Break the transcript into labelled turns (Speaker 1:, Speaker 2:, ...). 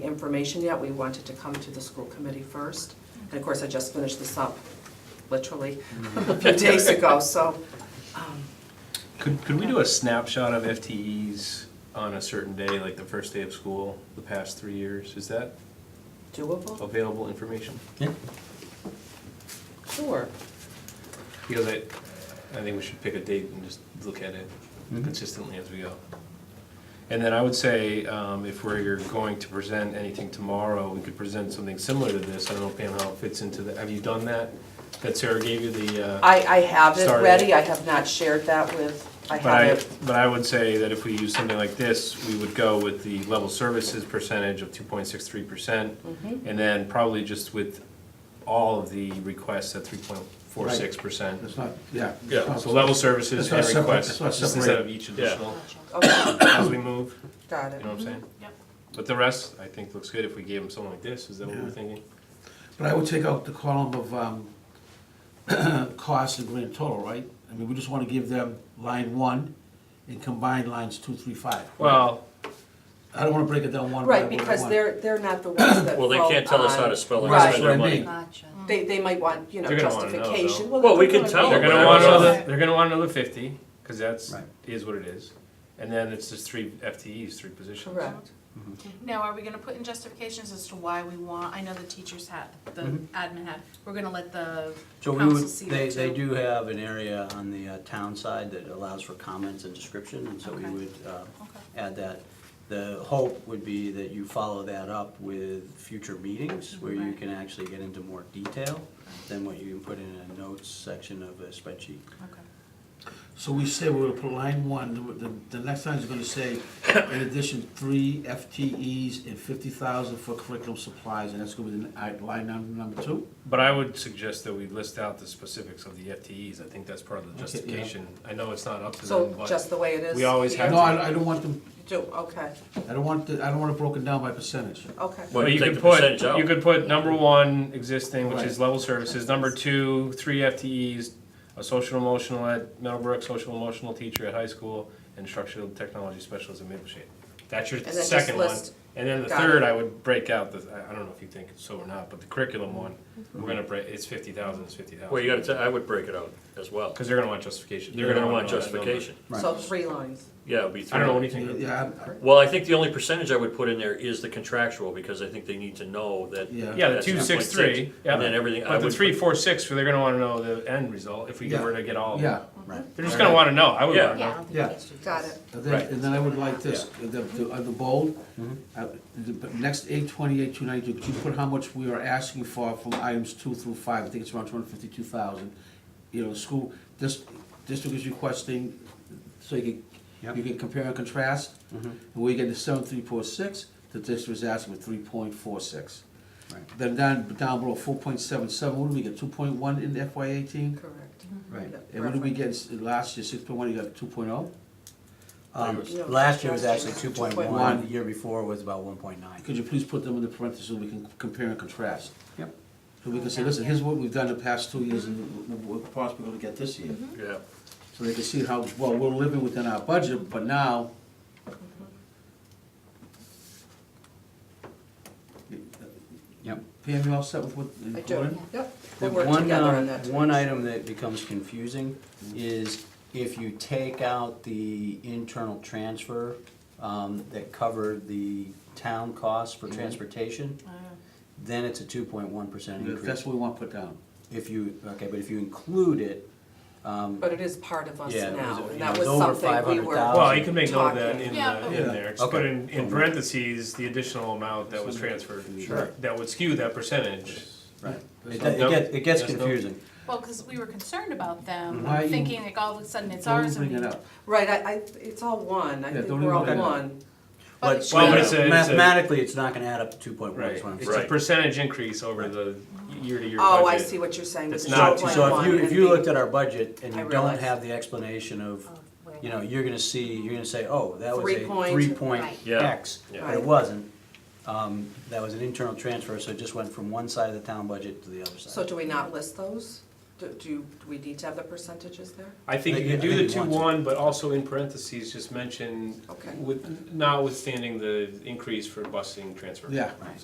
Speaker 1: information yet, we wanted to come to the school committee first. And of course, I just finished this up, literally, a
Speaker 2: Mm-hmm.
Speaker 1: few days ago, so, um,
Speaker 2: Could, could we do a snapshot of FTEs on a certain day, like the first day of school, the past three years? Is that
Speaker 1: doable?
Speaker 2: available information?
Speaker 1: Sure.
Speaker 2: Because I, I think we should pick a date and just look at it consistently as we go. And then I would say, um, if we're going to present anything tomorrow, we could present something similar to this. I don't know, Pam, how it fits into the, have you done that? That Sarah gave you the, uh,
Speaker 1: I, I have it
Speaker 2: Started.
Speaker 1: ready, I have not shared that with, I
Speaker 2: but
Speaker 1: have
Speaker 2: I,
Speaker 1: it,
Speaker 2: but I would say that if we use something like this, we would go with the level services percentage of two point six three percent.
Speaker 1: Mm-hmm.
Speaker 2: And then probably just with all of the requests at three point four six percent.
Speaker 3: It's not, yeah.
Speaker 4: Yeah,
Speaker 3: It's
Speaker 2: So
Speaker 3: not-
Speaker 2: level services
Speaker 3: That's not
Speaker 2: and
Speaker 3: separate,
Speaker 2: requests,
Speaker 3: that's not
Speaker 2: just
Speaker 3: separate.
Speaker 2: instead of each additional,
Speaker 1: okay,
Speaker 2: as we move,
Speaker 1: got
Speaker 2: you
Speaker 1: it.
Speaker 2: know what I'm saying? Yep. But the rest, I think, looks good if we gave them something like this, is that what we're
Speaker 3: Yeah.
Speaker 2: thinking?
Speaker 3: But I would take out the column of, um, cost and grand total, right? I mean, we just wanna give them line one and combine lines two, three, five.
Speaker 2: Well,
Speaker 3: I don't wanna break it down one by
Speaker 1: Right,
Speaker 3: one. by
Speaker 1: because
Speaker 3: one.
Speaker 1: they're, they're not the ones that
Speaker 4: Well, they can't
Speaker 1: vote
Speaker 4: tell us how
Speaker 1: on-
Speaker 4: to spell it,
Speaker 3: Right.
Speaker 4: spend their money.
Speaker 5: Gotcha.
Speaker 1: They, they might want, you know,
Speaker 2: They're gonna wanna know, though.
Speaker 1: justification.
Speaker 4: Well, we
Speaker 1: they're
Speaker 4: can
Speaker 1: gonna
Speaker 4: tell
Speaker 1: know.
Speaker 2: they're
Speaker 4: them.
Speaker 2: gonna want another,
Speaker 1: Okay.
Speaker 2: they're gonna want another fifty, cause that's,
Speaker 3: Right.
Speaker 2: is what it is. And then it's just three FTEs, three positions.
Speaker 1: Correct.
Speaker 6: Now, are we gonna put in justifications as to why we want, I know the teachers had, the admin had, we're gonna let the
Speaker 7: So we would,
Speaker 6: council see
Speaker 7: they,
Speaker 6: that too?
Speaker 7: they do have an area on the uh, town side that allows for comments and description, and so we
Speaker 6: Okay.
Speaker 7: would uh,
Speaker 6: Okay.
Speaker 7: add that. The hope would be that you follow that up with future meetings, where you
Speaker 6: Right.
Speaker 7: can actually get into more detail than what you can put in a notes section of a spreadsheet.
Speaker 6: Okay.
Speaker 3: So we say we're gonna put line one, the, the- the next line's gonna say, in addition, three FTEs and fifty thousand for curriculum supplies, and that's gonna be the, uh, line number, number two?
Speaker 2: But I would suggest that we list out the specifics of the FTEs, I think that's part of the
Speaker 3: yeah.
Speaker 2: justification. I know it's not up to them,
Speaker 1: So just
Speaker 2: but
Speaker 1: the way it is?
Speaker 2: we always have
Speaker 3: No,
Speaker 2: to-
Speaker 3: I, I don't want them,
Speaker 1: You Do, okay,
Speaker 3: I don't want, the- I don't want it broken down by percentage.
Speaker 1: okay.
Speaker 4: Well,
Speaker 2: But
Speaker 4: you
Speaker 2: you
Speaker 4: take
Speaker 2: could
Speaker 4: the percentage
Speaker 2: put,
Speaker 4: out.
Speaker 2: you could put number one existing, which is
Speaker 3: Right.
Speaker 2: level services, number two, three FTEs, a social emotional at Meadowbrook, social emotional teacher at high school, instructional technology specialist at Maple Shade. That's your
Speaker 1: And then just
Speaker 2: second one.
Speaker 1: list-
Speaker 2: And then the
Speaker 1: got
Speaker 2: third,
Speaker 1: it.
Speaker 2: I would break out the, I- I don't know if you think it's so or not, but the curriculum one, we're gonna break, it's fifty thousand, it's fifty thousand.
Speaker 4: Well, you gotta, t- I would break it out as well.
Speaker 2: Cause they're gonna want justification.
Speaker 4: You're gonna want
Speaker 2: know that number.
Speaker 4: justification.
Speaker 1: So three lines.
Speaker 4: Yeah, it'd be three.
Speaker 2: I don't know anything.
Speaker 3: Yeah, I-
Speaker 4: Well, I think the only percentage I would put in there is the contractual, because I think they need to know that.
Speaker 3: Yeah.
Speaker 2: Yeah, the
Speaker 4: that's
Speaker 2: two, six,
Speaker 4: 2.6,
Speaker 2: three, yeah.
Speaker 4: And then everything. I
Speaker 2: But the
Speaker 4: would
Speaker 2: three,
Speaker 4: put-
Speaker 2: four, six, they're gonna wanna know the end result, if we
Speaker 3: Yeah.
Speaker 2: were to get all of them.
Speaker 3: Yeah,
Speaker 6: Mm-hmm.
Speaker 7: Right.
Speaker 2: They're just gonna wanna know, I would
Speaker 4: Yeah.
Speaker 2: wanna know.
Speaker 5: Yeah, I don't think
Speaker 3: Yeah.
Speaker 5: kids do this.
Speaker 1: Got it.
Speaker 3: and
Speaker 2: Right.
Speaker 3: then, and then I would like this, the, the, uh, the bold, uh, the, but next eight twenty-eight, two ninety-two, could you put how much we are asking for from items two through five, I think it's around two hundred fifty-two thousand. You know, school, this, district is requesting, so you can,
Speaker 7: Yep.
Speaker 3: you can compare and contrast. And
Speaker 7: Mm-hmm.
Speaker 3: we get the seven three four six, the district is asking for three point four six.
Speaker 7: Right.
Speaker 3: Then down, down below, four point seven seven, what do we get, two point one in FY eighteen?
Speaker 1: Correct.
Speaker 7: Right.
Speaker 3: And what did we get s- last year, six point oh? one, you got two
Speaker 7: Um,
Speaker 1: No,
Speaker 7: last year was
Speaker 1: last
Speaker 7: actually
Speaker 1: year
Speaker 7: two
Speaker 1: was
Speaker 7: point one,
Speaker 3: 2.1.
Speaker 7: the year before was about one point nine.
Speaker 3: Could you please put them in the parentheses so we can compare and contrast?
Speaker 7: Yep.
Speaker 3: So we can say, listen, here's what we've done the past two years and w- w- we're possibly gonna get this
Speaker 6: Mm-hmm.
Speaker 3: year.
Speaker 4: Yeah,
Speaker 3: So they can see how, well, we're living within our budget, but now.
Speaker 7: Yep.
Speaker 3: Pam, you all set with what?
Speaker 1: I
Speaker 3: Gordon?
Speaker 1: do, yep.
Speaker 7: The
Speaker 1: We'll work
Speaker 7: one,
Speaker 1: together
Speaker 7: uh,
Speaker 1: on that.
Speaker 7: One item that becomes confusing is if you take out the internal transfer um, that covered the town costs
Speaker 1: Mm-hmm.
Speaker 7: for transportation, then it's a two point one percent
Speaker 3: That's
Speaker 7: increase.
Speaker 3: what we want put down.
Speaker 7: If you, okay, but if you include it, um,
Speaker 1: But it is part of us
Speaker 7: Yeah, it was-
Speaker 1: now,
Speaker 7: it
Speaker 1: and that
Speaker 7: was
Speaker 1: was
Speaker 7: over
Speaker 1: something we were.
Speaker 7: 500,000.
Speaker 2: Well, you can make note of that
Speaker 1: talking-
Speaker 2: in,
Speaker 6: Yeah.
Speaker 2: the- in there, just put
Speaker 7: Okay.
Speaker 2: in, in parentheses, the additional amount that was transferred.
Speaker 7: Sure.
Speaker 2: That would skew that percentage.
Speaker 7: right, it
Speaker 3: That's all.
Speaker 7: gets, it gets
Speaker 2: That's no-
Speaker 7: confusing.
Speaker 6: Well, because we were concerned about them,
Speaker 3: Why you-
Speaker 6: thinking like all of a sudden it's
Speaker 3: Don't
Speaker 6: ours and
Speaker 3: Bring
Speaker 6: we.
Speaker 3: it up.
Speaker 1: Right, I, I, it's all one, I
Speaker 3: Yeah,
Speaker 1: think
Speaker 3: don't
Speaker 1: we're all
Speaker 3: even-
Speaker 1: one.
Speaker 6: But
Speaker 7: But
Speaker 6: it's
Speaker 2: Well, but it's a- it's a-
Speaker 7: mathematically, it's not gonna add up to two point one,
Speaker 2: Right,
Speaker 7: is what I'm
Speaker 2: it's
Speaker 7: saying.
Speaker 2: a percentage increase over the year-to-year budget.
Speaker 1: Oh, I see what you're saying, with
Speaker 2: It's
Speaker 1: the
Speaker 2: not-
Speaker 1: two
Speaker 7: So
Speaker 1: point
Speaker 7: so if
Speaker 1: one
Speaker 7: you,
Speaker 1: and
Speaker 7: if you looked
Speaker 1: the,
Speaker 7: at our budget and
Speaker 1: I
Speaker 7: you don't
Speaker 1: realize.
Speaker 7: have the explanation of,
Speaker 5: Oh, where-
Speaker 7: you know, you're gonna see, you're gonna say, oh, that was
Speaker 1: Three
Speaker 7: a
Speaker 1: point-
Speaker 7: three point
Speaker 5: Right.
Speaker 4: Yeah.
Speaker 7: X,
Speaker 2: Yeah.
Speaker 7: but it
Speaker 1: Right.
Speaker 7: wasn't. Um, that was an internal transfer, so it just went from one side of the town budget to the other
Speaker 1: so
Speaker 7: side.
Speaker 1: do we not list those? Do, do you- do we need to have the percentages there?
Speaker 2: I think you
Speaker 7: I
Speaker 2: can
Speaker 7: think-
Speaker 2: do
Speaker 7: I
Speaker 2: the
Speaker 7: think
Speaker 2: two
Speaker 7: you want to.
Speaker 2: one, but also in parentheses, just mention
Speaker 1: Okay.
Speaker 2: with, notwithstanding the increase for busing transfer.
Speaker 3: Yeah.
Speaker 1: Right.